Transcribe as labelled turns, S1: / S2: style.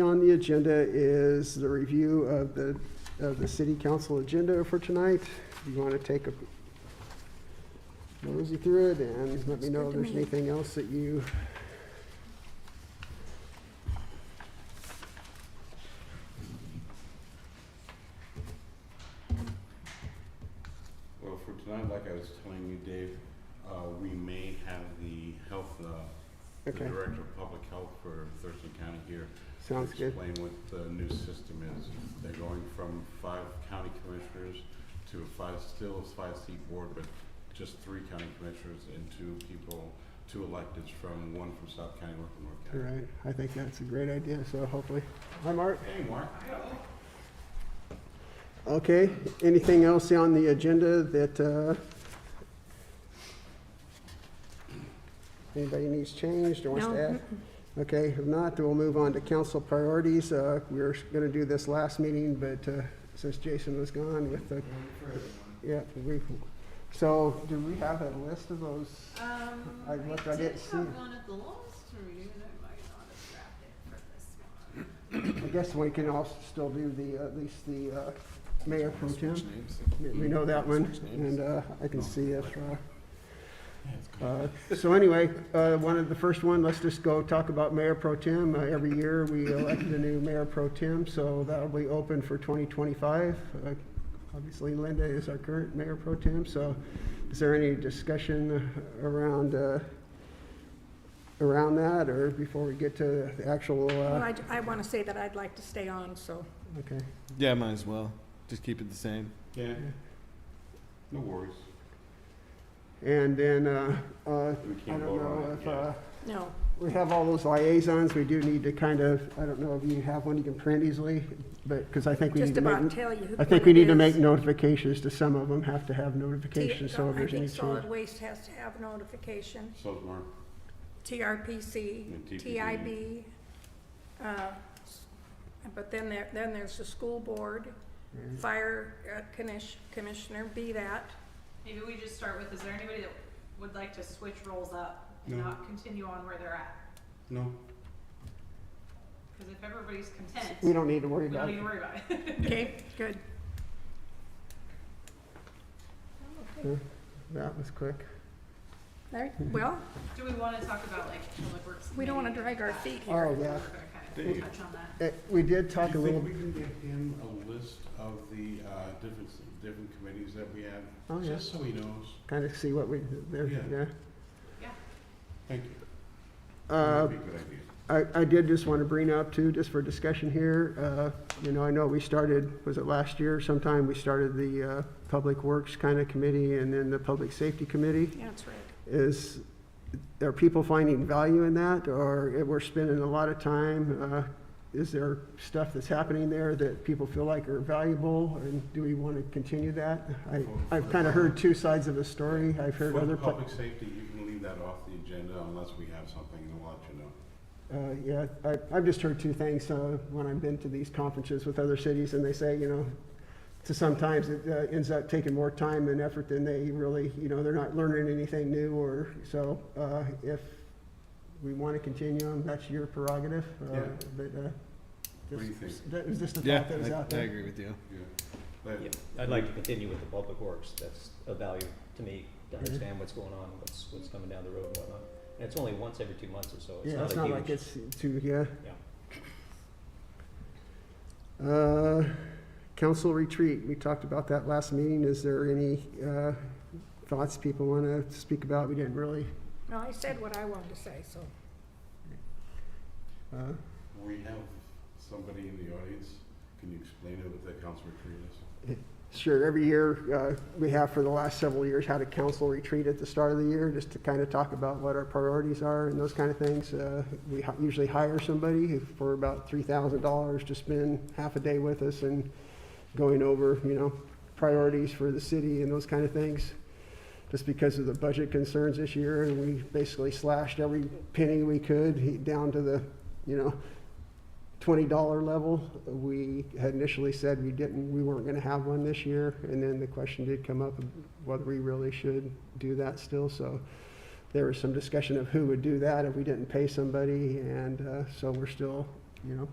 S1: On the agenda is the review of the, of the city council agenda for tonight. If you want to take a nosy through it and let me know if there's anything else that you,
S2: Well, for tonight, like I was telling you, Dave, uh, we may have the health, uh, the
S1: okay,
S2: Director of Public Health for Thurston County here. to
S1: sounds good.
S2: Explain what the new system is. They're going from five county commissioners to a five, still a five-seat board, but just three county commissioners and two people, two electeds from, one from South County, one from North
S1: All
S2: County.
S1: right, I think that's a great idea, so hopefully. Hi, Mark.
S2: Hey, Mark.
S1: Okay, anything else on the agenda that uh, anybody needs changed or wants to
S3: No.
S1: add? Okay, if not, then we'll move on to council priorities. Uh, We were going to do this last meeting, but uh, since Jason was gone with the, yeah, we, so do we have a list of those?
S4: Um,
S1: I looked, I
S4: did
S1: didn't see it.
S4: have one at the last meeting, and I might not have grabbed it for this one.
S1: I guess we can also still do the, at least the uh, mayor pro tem. We- We know that one, and uh, I can see it. uh, Uh, So anyway, uh, one of the first one, let's just go talk about mayor pro tem. Uh, Every year, we elect a new mayor pro tem, so that'll be open for 2025. Uh, Obviously, Linda is our current mayor pro tem, so is there any discussion around, uh, around that, or before we get to the actual? uh,
S3: Well, I, want to say that I'd like to stay on, so,
S1: Okay,
S5: Yeah, might as well. Just keep it the same.
S2: Yeah, no worries.
S1: and then, uh, uh,
S2: We
S1: I
S2: can't
S1: don't
S2: vote on
S1: know
S2: it
S1: if, uh,
S2: yet.
S3: no.
S1: We have all those liaisons, we do need to kind of, I don't know if you have one you can print easily, but, because I think we need
S3: Just
S1: to
S3: about
S1: make,
S3: tell you who.
S1: I think we need to make notifications to some of them, have to have notifications, so if
S3: I
S1: there's any
S3: think solid
S1: change.
S3: waste has to have notification,
S2: So, is Mark, And
S3: TRPC,
S2: TPP.
S3: TIB. uh, s- But then there, then there's the school board, fire uh, commis- commissioner, be that.
S4: Maybe we just start with, is there anybody that would like to switch roles up and
S2: No.
S4: not continue on where they're at?
S2: no,
S4: Because if everybody's content,
S1: We
S4: we
S1: don't need to worry
S4: don't
S1: about
S4: need
S1: it.
S4: to worry about it.
S3: Okay, good.
S1: That was quick.
S3: All right, well,
S4: Do we want to talk about like public works?
S3: we don't want to
S4: Committee?
S3: drag our feet here.
S1: Oh, yeah.
S4: We're gonna kind
S2: Dave.
S4: of touch on that.
S1: Eh, We did
S2: Do you
S1: talk a little,
S2: think we can get him a list of the uh, different, different committees that we have?
S1: Oh, yeah.
S2: Just so he knows.
S1: kind of see what we, there,
S2: Yeah.
S1: yeah.
S2: Thank you.
S1: Uh,
S2: That'd be a good idea.
S1: I, I did just want to bring up too, just for discussion here, uh, you know, I know we started, was it last year sometime, we started the, uh, Public Works kind of committee and then the Public Safety Committee.
S3: Yeah, That's right.
S1: is, are people finding value in that, or we're spending a lot of time? uh, Is there stuff that's happening there that people feel like are valuable, and do we want to continue that? I, I've kind of heard two sides of the story, I've heard
S2: For
S1: other, pla-
S2: public safety, you can leave that off the agenda unless we have something and we'll let you know.
S1: uh, yeah, I, I've just heard two things, uh, when I've been to these conferences with other cities, and they say, you know, to sometimes it uh, ends up taking more time and effort than they really, you know, they're not learning anything new or, so, uh, if we want to continue on, that's your prerogative. uh,
S2: Yeah.
S1: But, uh,
S2: What do you
S1: just-
S2: think?
S1: that was just a
S5: Yeah,
S1: thought that was out
S5: I, I
S1: there.
S5: agree with you.
S2: Yeah. But
S6: Yeah, I'd like to continue with the public works, that's of value to me,
S1: Mm-hmm.
S6: to understand what's going on, what's, what's coming down the road and whatnot. And it's only once every two months or so,
S1: Yeah,
S6: it's
S1: it's not
S6: not a
S1: like
S6: huge.
S1: it's too, yeah.
S6: Yeah.
S1: Uh, Council retreat, we talked about that last meeting. Is there any uh, thoughts people want to speak about? We didn't really.
S3: No, I said what I wanted to say, so.
S1: uh,
S2: we have somebody in the audience. Can you explain what the council retreat is?
S1: Sure, every year, uh, we have for the last several years had a council retreat at the start of the year, just to kind of talk about what our priorities are and those kind of things. Uh, We hi- usually hire somebody who- for about $3,000 to spend half a day with us and going over, you know, priorities for the city and those kind of things. Just because of the budget concerns this year, and we basically slashed every penny we could he- down to the, you know, $20 level. We had initially said we didn't, we weren't going to have one this year, and then the question did come up of whether we really should do that still. So there was some discussion of who would do that if we didn't pay somebody, and uh, so we're still, you know,